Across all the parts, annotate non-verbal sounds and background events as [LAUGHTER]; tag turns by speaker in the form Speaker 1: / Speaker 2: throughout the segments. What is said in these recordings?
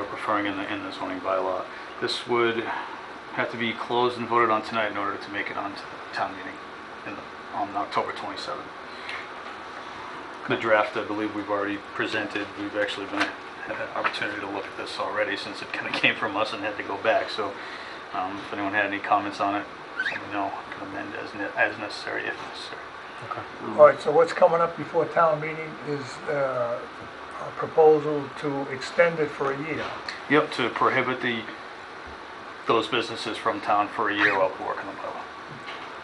Speaker 1: referring in the, in the zoning bylaw. This would have to be closed and voted on tonight in order to make it onto the town meeting in the- on October 27th. The draft, I believe we've already presented, we've actually been, had an opportunity to look at this already since it kind of [LAUGHS] came from us and had to go back, so um, if anyone had any comments on it, let me know, I can amend as ne- as necessary, if necessary.
Speaker 2: All right, so what's coming up before town meeting is uh, a proposal to extend it for a year.
Speaker 1: Yep, to prohibit the, those businesses from town for a year while we work on the bylaw.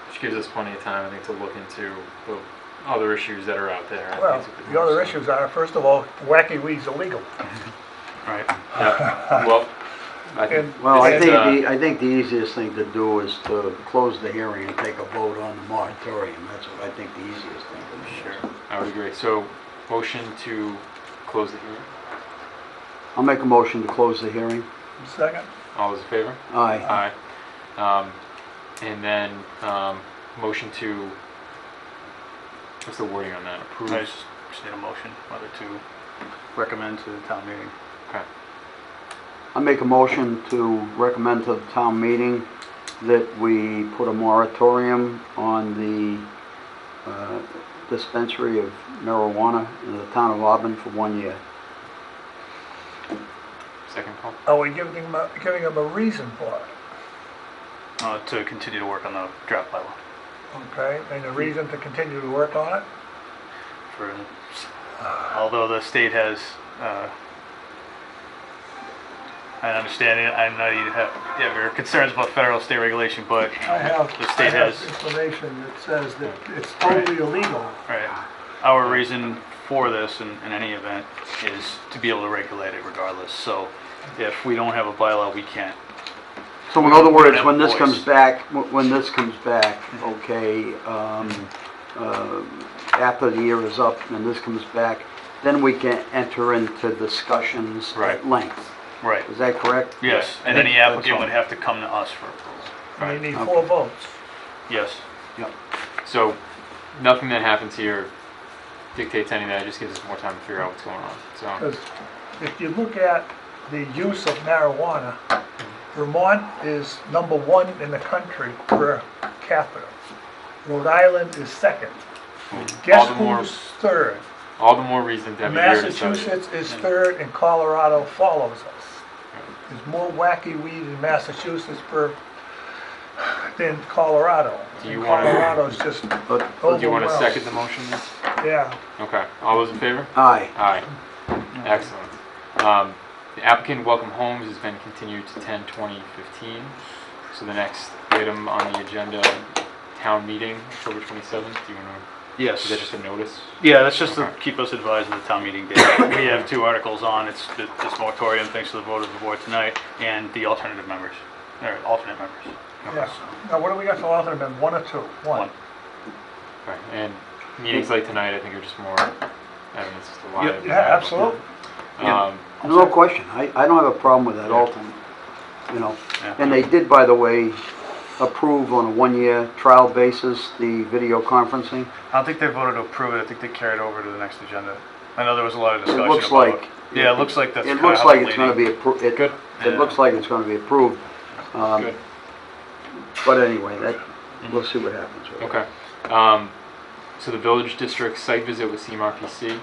Speaker 3: Which gives us plenty of time, I think, to look into the other issues that are out there. I think
Speaker 2: Well,
Speaker 3: it's a good
Speaker 2: the other
Speaker 3: move, so-
Speaker 2: issues are, first of all, wacky weed's illegal.
Speaker 1: Right.
Speaker 3: Yeah, Well, I think,
Speaker 2: And-
Speaker 4: Well, I
Speaker 3: This
Speaker 4: think,
Speaker 3: is, uh,
Speaker 4: the I think the easiest thing to do is to close the hearing and take a vote on the moratorium. That's what I think the easiest thing to do.
Speaker 3: sure, I would agree. So, motion to close the hearing.
Speaker 4: I'll make a motion to close the hearing.
Speaker 2: Second,
Speaker 3: All those in favor?
Speaker 4: Aye.
Speaker 3: Aye. Um, and then, um, motion to, what's the wording on that? Approve?
Speaker 1: I just just need a motion whether to recommend to the town meeting.
Speaker 3: Okay.
Speaker 4: I make a motion to recommend to the town meeting that we put a moratorium on the uh, dispensary of marijuana in the town of Auburn for one year.
Speaker 3: Second, Paul?
Speaker 2: are we giving them, a- giving them a reason for it?
Speaker 1: Uh, to continue to work on the draft bylaw
Speaker 2: Okay, and a reason to continue to work on it?
Speaker 1: for, although the state has, uh, I understand it, I know you have, you have your concerns about federal state regulation, but
Speaker 2: I have,
Speaker 1: the
Speaker 2: I
Speaker 1: state
Speaker 2: have
Speaker 1: has,
Speaker 2: information that says that it's totally illegal.
Speaker 1: right. Our reason for this in, in any event is to be able to regulate it regardless. So if we don't have a bylaw, we can't.
Speaker 4: So in other words,
Speaker 1: have
Speaker 4: when this
Speaker 1: voice.
Speaker 4: comes back, wh- when this comes back, okay, um, uh, after the year is up and this comes back, then we can enter into discussions
Speaker 1: Right.
Speaker 4: at length.
Speaker 1: Right.
Speaker 4: Is that correct?
Speaker 1: Yes, and
Speaker 4: That-
Speaker 1: any
Speaker 4: that's
Speaker 1: applicant
Speaker 4: all.
Speaker 1: would have to come to us for approval.
Speaker 2: And they need
Speaker 4: Right.
Speaker 2: four votes.
Speaker 1: Yes.
Speaker 4: Yep.
Speaker 3: So, nothing that happens here dictates any of that, it just gives us more time to figure out what's going on, so.
Speaker 2: Because if you look at the use of marijuana, Vermont is number one in the country per capita. Rhode Island is second.
Speaker 3: All
Speaker 2: Guess
Speaker 3: the more,
Speaker 2: who's third?
Speaker 3: all the more reason to have a year to study. it.
Speaker 2: Massachusetts is third and Colorado follows us. There's more wacky weed in Massachusetts per, than Colorado.
Speaker 3: Do you
Speaker 2: And
Speaker 3: wanna-
Speaker 2: Colorado's just
Speaker 4: But,
Speaker 3: Do you want to
Speaker 2: overwhelmed.
Speaker 3: second the motion? then?
Speaker 2: Yeah,
Speaker 3: Okay, all those in favor?
Speaker 4: aye,
Speaker 3: Aye. Excellent. Um, The applicant Welcome Homes has been continued to 10/20/15. So the next item on the agenda, town meeting, October 27th. Do you want to, is that just
Speaker 1: Yes.
Speaker 3: a notice?
Speaker 1: Yeah, that's just to
Speaker 3: Okay.
Speaker 1: keep us advised of the town meeting date. [COUGHS] We have two articles on, it's th- this moratorium, thanks to the vote of the board tonight, and the alternative members, or alternate members.
Speaker 2: yeah. Now, what do we got for alternate amendment, one or two?
Speaker 1: One.
Speaker 3: Right, And meetings like tonight, I think are just more evidence as to why.
Speaker 1: Yep,
Speaker 3: it'd be
Speaker 2: Yeah,
Speaker 3: valuable.
Speaker 2: absolutely.
Speaker 1: Yeah.
Speaker 3: Um,
Speaker 4: no question, I, I don't have a problem with that alternate, you know.
Speaker 1: Yeah.
Speaker 4: And they did, by the way, approve on a one-year trial basis the video conferencing.
Speaker 1: I don't think they voted to approve it, I think they carried over to the next agenda. I know there was a lot of
Speaker 4: It
Speaker 1: discussion about it.
Speaker 4: looks like.
Speaker 1: Yeah, it looks like that's
Speaker 4: It
Speaker 1: kinda
Speaker 4: looks
Speaker 1: how
Speaker 4: like
Speaker 1: the
Speaker 4: it's gonna be
Speaker 1: leading-
Speaker 4: approved, it,
Speaker 3: Good.
Speaker 4: it looks like it's gonna be approved. Um,
Speaker 3: Good.
Speaker 4: But anyway, that,
Speaker 1: Mm-hmm.
Speaker 4: we'll see what happens. with it.
Speaker 3: Okay. Um, So the village district site visit with CMRPC.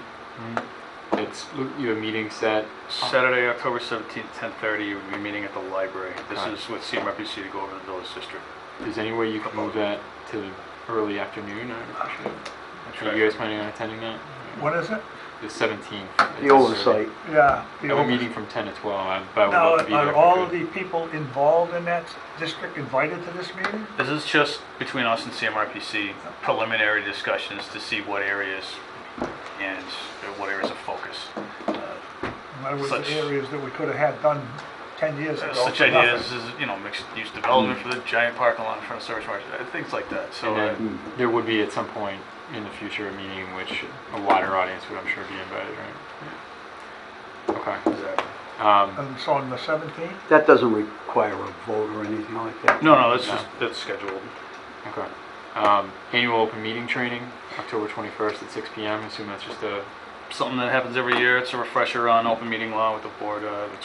Speaker 3: It's, you have a meeting set.
Speaker 1: Saturday, October 17th, 10:30, we'll be meeting at the library. This
Speaker 3: Alright.
Speaker 1: is with CMRPC to go over the village district.
Speaker 3: Is there any way you could move that to early afternoon? I would appreciate it. Are you guys planning on attending that?
Speaker 2: What is it?
Speaker 3: The 17th.
Speaker 4: The oversight,
Speaker 2: Yeah.
Speaker 3: I
Speaker 2: the
Speaker 3: have a
Speaker 2: over-
Speaker 3: meeting from 10 to 12, but I would
Speaker 2: Now,
Speaker 3: love to be there.
Speaker 2: are
Speaker 3: if
Speaker 2: all
Speaker 3: I could.
Speaker 2: the people involved in that district invited to this meeting?
Speaker 1: This is just between us and CMRPC, preliminary discussions to see what areas and what areas of focus.
Speaker 2: In other words,
Speaker 1: Such-
Speaker 2: the areas that we could have had done 10 years ago.
Speaker 1: Such
Speaker 2: for
Speaker 1: ideas
Speaker 2: nothing.
Speaker 1: as, you know, mixed-use development for the giant parking lot in front of Service Mart, uh, things like that, so.
Speaker 3: And
Speaker 1: uh,
Speaker 3: then there would be at some point in the future a meeting in which a wider audience would, I'm sure, be invited, right? Okay. Um,
Speaker 2: And so on the 17th,
Speaker 4: that doesn't require a vote or anything like that.
Speaker 1: No, no, that's
Speaker 3: No.
Speaker 1: just, that's scheduled.
Speaker 3: okay. Um, annual open meeting training, October 21st at 6 p.m. I assume that's just a
Speaker 1: Something that happens every year, it's a refresher on open meeting law with the board, uh, it's